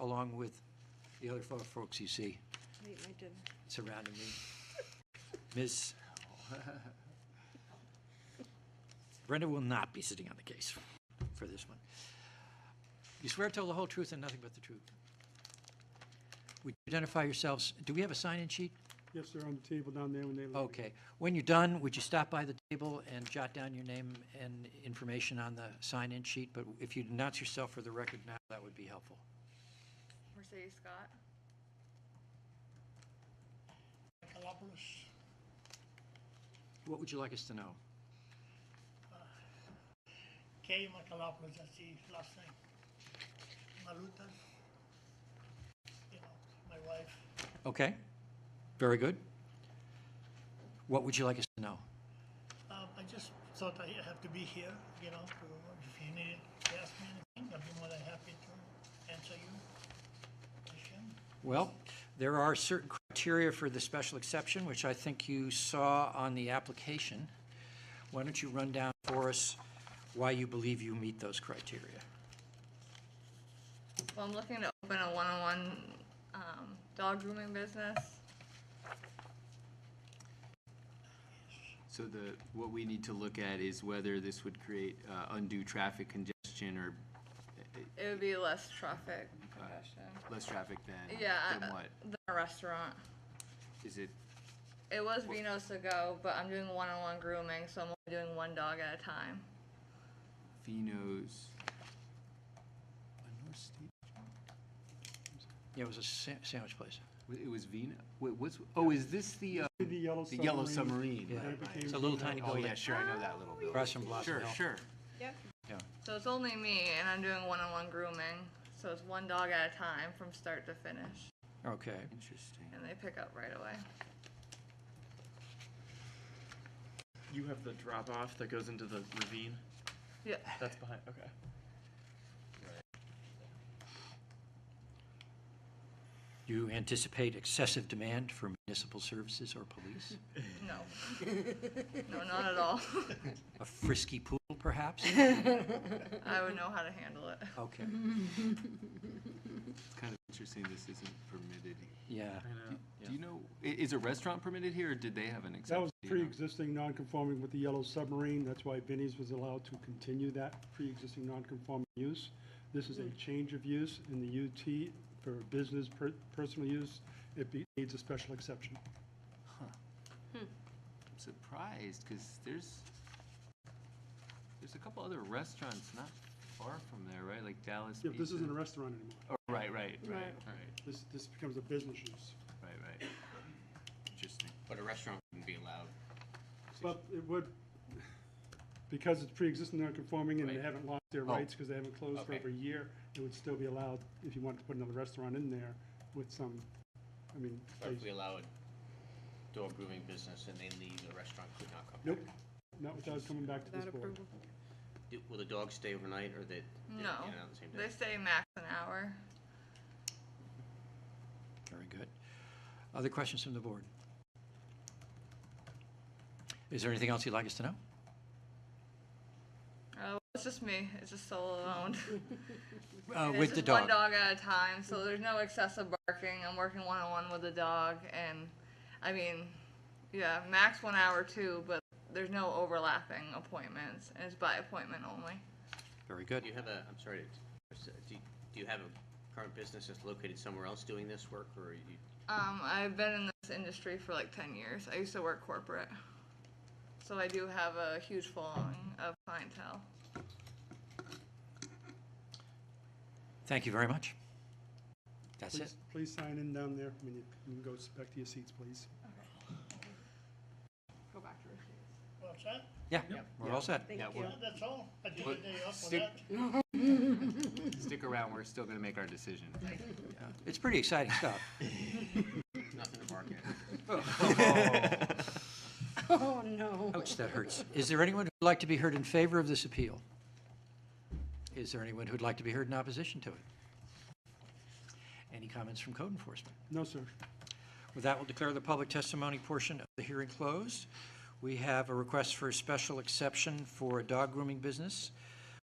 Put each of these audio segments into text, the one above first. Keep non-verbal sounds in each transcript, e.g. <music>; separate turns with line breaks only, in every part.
along with the other fo- folks you see
Wait, I did.
surrounding me. Ms. Brenda will not be sitting on the case for this one. You swear to tell the whole truth and nothing but the truth. Would you identify yourselves? Do we have a sign-in sheet?
Yes, they're on the table down there when they leave.
Okay. When you're done, would you stop by the table and jot down your name and information on the sign-in sheet? But if you'd announce yourself for the record now, that would be helpful.
Mercedes Scott.
Michaelopoulos,
What would you like us to know?
K. Michaelopoulos, that's his last name. Maluta, you know, my wife,
Okay, very good. What would you like us to know?
Um, I just thought I have to be here, you know, to, if you need to ask me anything, I'd be more than happy to answer you. Question?
Well, there are certain criteria for the special exception, which I think you saw on the application. Why don't you run down for us why you believe you meet those criteria?
Well, I'm looking to open a one-on-one um, dog grooming business.
So the, what we need to look at is whether this would create uh, undue traffic congestion or
It would be less traffic congestion.
less traffic than,
Yeah, I-
than what?
Than a restaurant.
Is it,
It was Vino's to go, but I'm doing one-on-one grooming, so I'm only doing one dog at a time.
Fino's? North State?
Yeah, it was a sa- sandwich place.
Wa- It was Vino, wait, what's, oh, is this the, uh,
The yellow
the
submarine.
yellow submarine?
Yeah.
right,
It
right.
became
It's a little
Vino.
tiny
Oh,
building
yeah, sure, I know that little building.
across from Blossom
Sure,
Hill.
sure.
Yep.
So it's only me, and I'm doing one-on-one grooming. So it's one dog at a time from start to finish,
Okay,
Interesting.
and they pick up right away.
You have the drop off that goes into the ravine.
Yeah.
That's behind. Okay.
do you anticipate excessive demand for municipal services or police?
<laughs>
No. no, not at all. <laughs>
A frisky pool, perhaps?
I would know how to handle it.
Okay,
It's kind of interesting this isn't permitted.
yeah.
I know. Yeah.
Do you know, i- is a restaurant permitted here or did they have an exception?
That was
Do you know?
pre-existing non-conforming with the yellow submarine. That's why Vinnie's was allowed to continue that pre-existing non-conforming use. This is a change of use in the UT for business, per- personal use. It be- needs a special exception.
I'm surprised because there's there's a couple other restaurants not far from there, right? Like Dallas.
Yeah, but this
Pizza.
isn't a restaurant anymore.
Oh, right, right, right,
Right.
right,
This, this becomes a business use.
right, right. Interesting. But a restaurant wouldn't be allowed.
But it would, because it's pre-existing non-conforming and they
Right.
haven't lost their
Oh.
rights because they haven't closed for
Okay.
over a year, it would still be allowed if you wanted to put another restaurant in there with some, I mean,
But if
they-
we allow a door grooming business and they leave, the restaurant could not come
nope,
back.
not without coming back to this
Without
board.
approval.
Do- Will the dogs stay overnight or they, they
No.
get out the same
They
day?
say max an hour.
Very good. Other questions from the board? Is there anything else you'd like us to know?
Uh, it's just me. It's just solo <laughs> owned.
Uh,
It's
With the
just
dog?
One dog at a time, so there's no excessive barking. I'm working one on one with the dog, and I mean, yeah, max one hour too, but there's no overlapping appointments, and it's by appointment only.
Very good.
Do you have a, I'm sorry, to- do you- do you have a current business that's located somewhere else doing this work or are you?
Um, I've been in this industry for like 10 years. I used to work corporate, so I do have a huge following of clientele.
Thank you very much. That's it.
Please, please sign in down there. I mean, you you can go s- back to your seats, please.
Go back to receipt.
What's that?
Yeah, we're all set.
Thank
Yeah,
you.
we're-
Yeah, That's all? I did a
But
day off for
stick-
that.
Stick around. We're still gonna make our decision.
It's pretty exciting stuff.
Nothing to bark at.
<laughs>
Oh, no.
Ouch, that hurts. Is there anyone who'd like to be heard in favor of this appeal? Is there anyone who'd like to be heard in opposition to it? Any comments from code enforcement?
No, sir.
With that, we'll declare the public testimony portion of the hearing closed. We have a request for a special exception for a dog grooming business.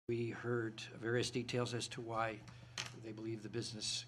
We heard various details as to why they believe the business